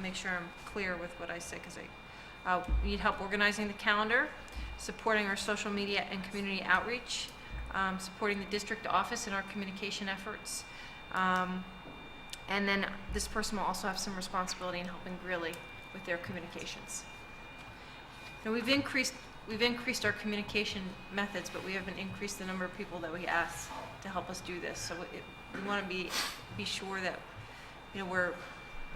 make sure I'm clear with what I say, because I, uh, we need help organizing the calendar, supporting our social media and community outreach, um, supporting the district office in our communication efforts. Um, and then this person will also have some responsibility in helping Greeley with their communications. Now, we've increased, we've increased our communication methods, but we haven't increased the number of people that we ask to help us do this. So it, we want to be, be sure that, you know, we're,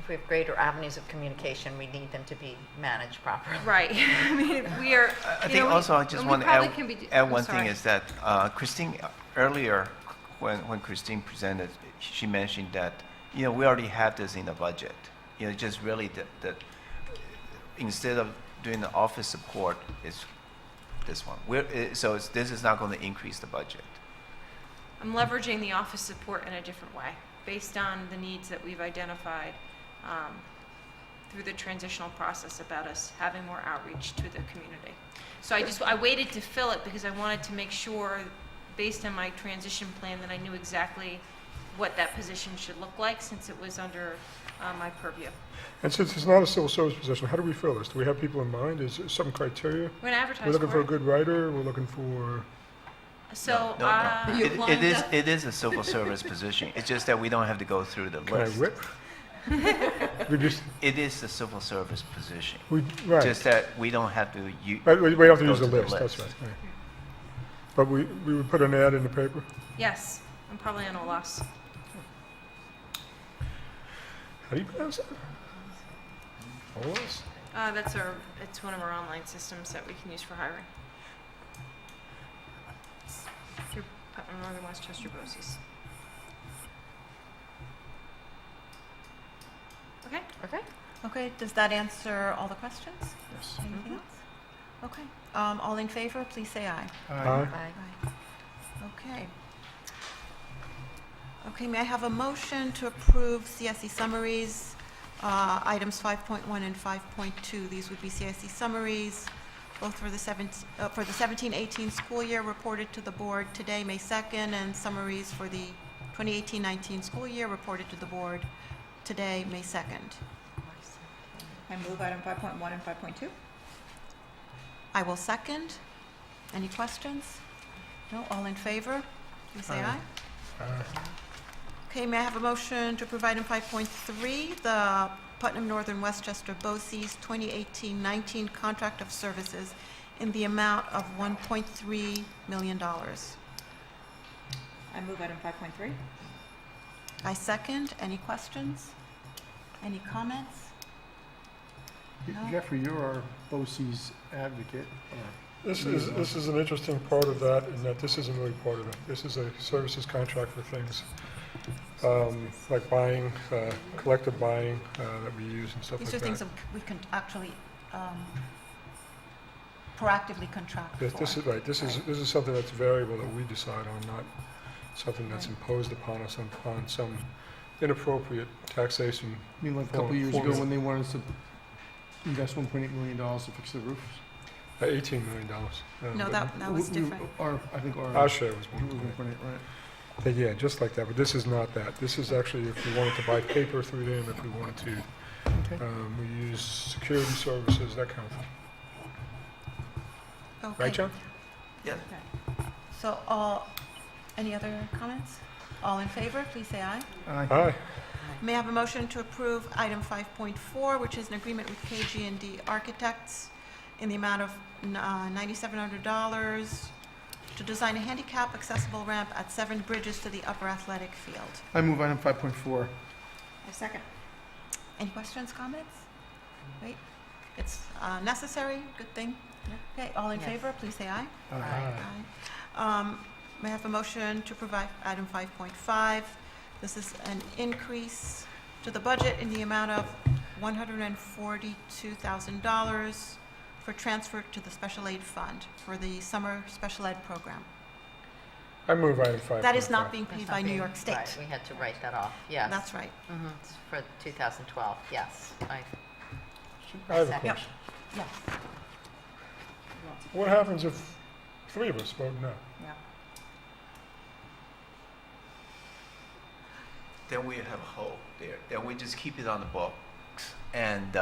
If we have greater avenues of communication, we need them to be managed properly. right, I mean, we are, I you know, think we- also I just and we want to probably can be add, do- add I'm one thing sorry. is that uh, Christine, uh, earlier, when, when Christine presented, she mentioned that, you know, we already have this in the budget. You know, just really that, that instead of doing the office support, it's this one. We're, eh, so it's, this is not going to increase the budget. I'm leveraging the office support in a different way, based on the needs that we've identified um, through the transitional process about us having more outreach to the community. So I just, I waited to fill it because I wanted to make sure, based on my transition plan, that I knew exactly what that position should look like, since it was under uh, my purview. And since it's not a civil service position, how do we fill this? Do we have people in mind? Is there some criteria? We're going to advertise for it. We're looking for a good writer, we're looking for, So, No, no, uh, no. It- It is, it is a civil service position. It's just that we don't have to go through the can I list. whip? We just, It is a civil service position. we, right, Just that we don't have to u- Right, we we don't have to go use the to the list, that's right. list. right. But we, we would put an ad in the paper? yes, I'm probably on a loss. How do you pronounce that? Olas? Uh, That's our, it's one of our online systems that we can use for hiring. Through Putnam Northern Westchester BOCES. Okay? Okay. Okay, does that answer all the questions? Yes. Anything else? Okay, um, all in favor, please say aye. Aye. Aye. Aye. Okay. Okay, may I have a motion to approve CSE summaries, uh, items 5.1 and 5.2? These would be CSE summaries, both for the 17, uh, for the 17-18 school year reported to the board today, May 2nd, and summaries for the 2018-19 school year reported to the board today, May 2nd. I move item 5.1 and 5.2. I will second. Any questions? No, all in favor? Please say Aye. aye. Aye. Okay, may I have a motion to approve item 5.3, the Putnam Northern Westchester BOCES 2018-19 Contract of Services in the amount of $1.3 million? I move item 5.3. I second. Any questions? Any comments? No? Jeffrey, you're our BOCES advocate. This is, this is an interesting part of that, in that this isn't really part of it. This is a services contract for things, um, like buying, uh, collective buying, uh, that we use and stuff like These that. are things that we can actually um, proactively contract for. Yes, this is, right, this is, this is something that's variable that we decide on, not something that's imposed upon us upon some inappropriate taxation. I mean, like a couple Four- of years four ago million. when they wanted us to invest one point eight million dollars to fix the roofs. Uh, Eighteen million dollars. Uh, No, that, that was We- we- different. Our, I think our. Our share was it one was point. 1.8, right. But Yeah, just like that, but this is not that. This is actually if we wanted to buy paper through them, if we wanted to, Okay. um, we use security services, that kind of thing. Okay. Right, John? So, all, any other comments? All in favor, please say aye. Aye. Aye. May I have a motion to approve item 5.4, which is an agreement with KG&D Architects in the amount of uh, $9,700 to design a handicap accessible ramp at Seven Bridges to the upper athletic field. I move item five point four. I second. Any questions, comments? Wait, it's uh, necessary, good thing. Okay, all in Yes. favor, please say aye. Aye. Aye. Um, May I have a motion to provide item 5.5? This is an increase to the budget in the amount of $142,000 for transfer to the special aid fund for the summer special ed program. I move item five. That is not point being That's paid not by New being- York State. Right, we had to write that off, yes. That's right. Mhm, it's For 2012, yes. I- five. I have a Yep. question. Yes. What happens if three of us vote no? Yeah. Then we have hope there. Then we just keep it on the books. and